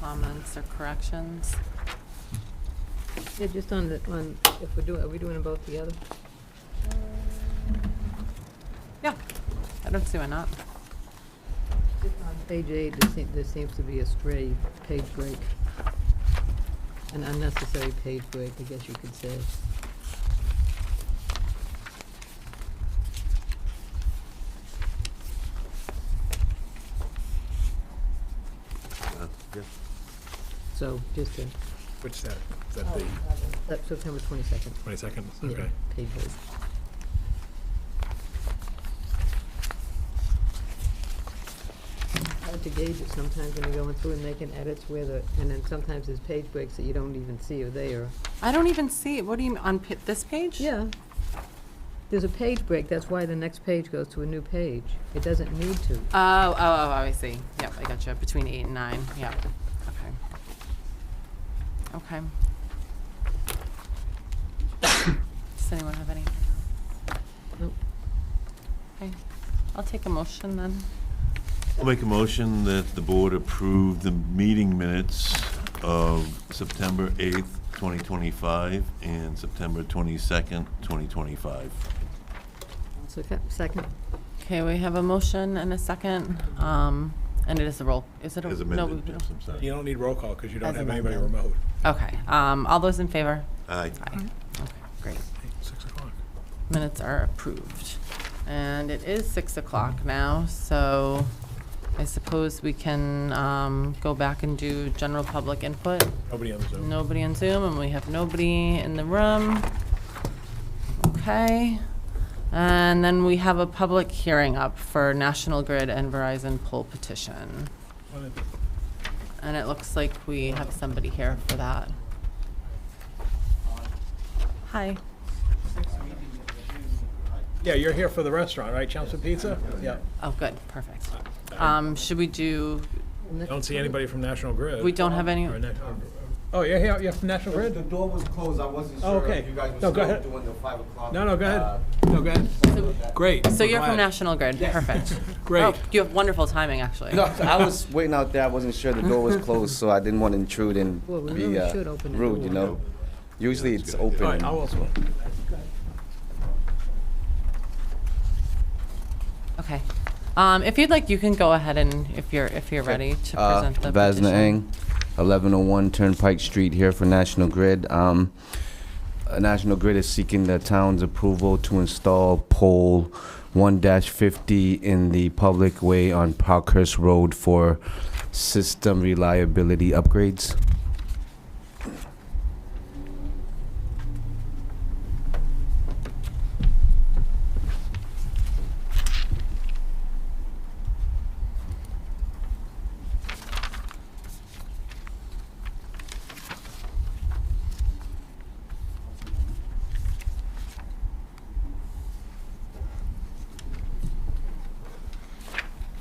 comments or corrections? Yeah, just on the, on, if we're doing, are we doing them both together? Yeah, I don't see why not. On Page eight, there seems, there seems to be a stray page break. An unnecessary page break, I guess you could say. Uh, yeah. So just to, Which that, is that the that's September twenty-second. twenty-second, Yeah, okay. Page break. Hard to gauge it sometimes when you're going through and making edits where the, and then sometimes there's page breaks that you don't even see are there. I don't even see, what do you, mean on pa- this page? Yeah. There's a page break, that's why the next page goes to a new page. It doesn't need to. Oh, oh, oh, I see. Yep, I got you. Between eight and nine, yep. Okay. Okay. Does anyone have any? Nope. Okay, I'll take a motion then. I'll make a motion that the board approve the meeting minutes of September 8th, 2025, and September 22nd, 2025. So, ca- second, Okay, we have a motion and a second, um, and it is a roll, is it a? As no, we amended, don't- yes, I'm sorry. You don't need roll call because you don't As have anybody amended. remote. Okay, um, all those in favor? Aye. Aye. Okay, great. Six o'clock. Minutes are approved. And it is six o'clock now, so I suppose we can, um, go back and do general public input. Nobody on the Zoom. Nobody on Zoom, and we have nobody in the room. Okay. And then we have a public hearing up for National Grid and Verizon poll petition. Wanna- And it looks like we have somebody here for that. Hi. Yeah, you're here for the restaurant, right? Chelmsford Pizza? Yeah. Oh, good, perfect. Um, should we do, Don't see anybody from National Grid. we don't have any, Or Na- or- Oh, you're here, you're from National The Grid? door was closed, I wasn't Oh, sure if okay. you guys were No, go still ahead. doing the five o'clock. No, no, go uh, ahead. No, go ahead. Great. so we're you're from glad. National Grid, perfect. Great. Oh, You have wonderful timing, actually. No, I was waiting out there. I wasn't sure the door was closed, so I didn't want to intrude and Well, we be really uh, should open the rude, you door. know? Usually it's open. All right, and- I'll also. Okay. Um, if you'd like, you can go ahead and, if you're, if you're ready to Uh, present the petition. Vasna Eng, 1101 Turnpike Street here for National Grid. Um, uh, National Grid is seeking the town's approval to install pole 1-50 in the public way on Parkhurst Road for system reliability upgrades.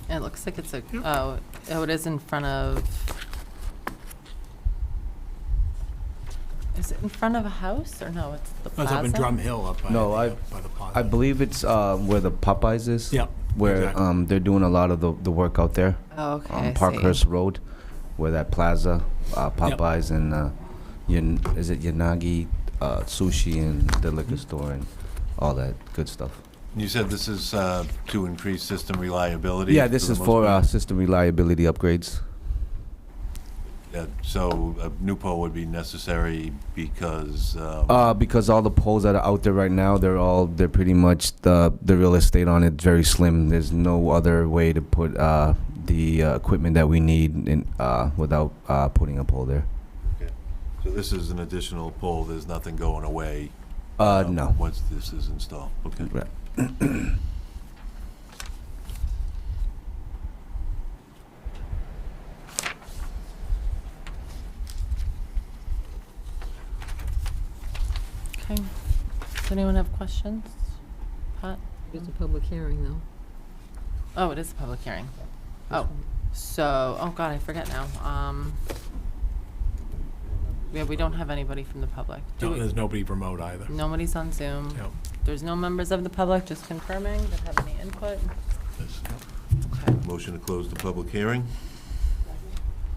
It looks like it's a, oh, oh, it is in front of, is it in front of a house, or no, it's the Oh, I plaza? was up in Drum Hill up by, No, I- the- by the plaza. I believe it's uh, where the Popeyes is. Yep, Where exactly. um, they're doing a lot of the, the work out there Oh, okay, on I see. Parkhurst Road, where that plaza, uh, Yep. Popeyes, and uh, Yan- is it Yanagi uh, Sushi and the liquor store and all that good stuff. You said this is uh, to increase system reliability? Yeah, this the is most for part? uh, system reliability upgrades. uh, Yeah, So a new pole would be necessary because, um, Uh, because all the poles that are out there right now, they're all they're pretty much the the real estate on it very slim. There's no other way to put uh, the uh, equipment that we need in, uh, without uh, putting a pole there. so this is an additional pole, there's nothing going away? Uh, um, no. Once this is installed, okay. Right. Okay. Does anyone have questions? Pat? It's a public hearing, though. Oh, it is a public hearing. Oh, so, oh God, I forget now. Um, yeah, we don't have anybody from the public. Do No, we- there's nobody remote either. Nobody's on Zoom. Yep, There's no members of the public, just confirming that have any input. there's- Okay. Motion to close the public hearing?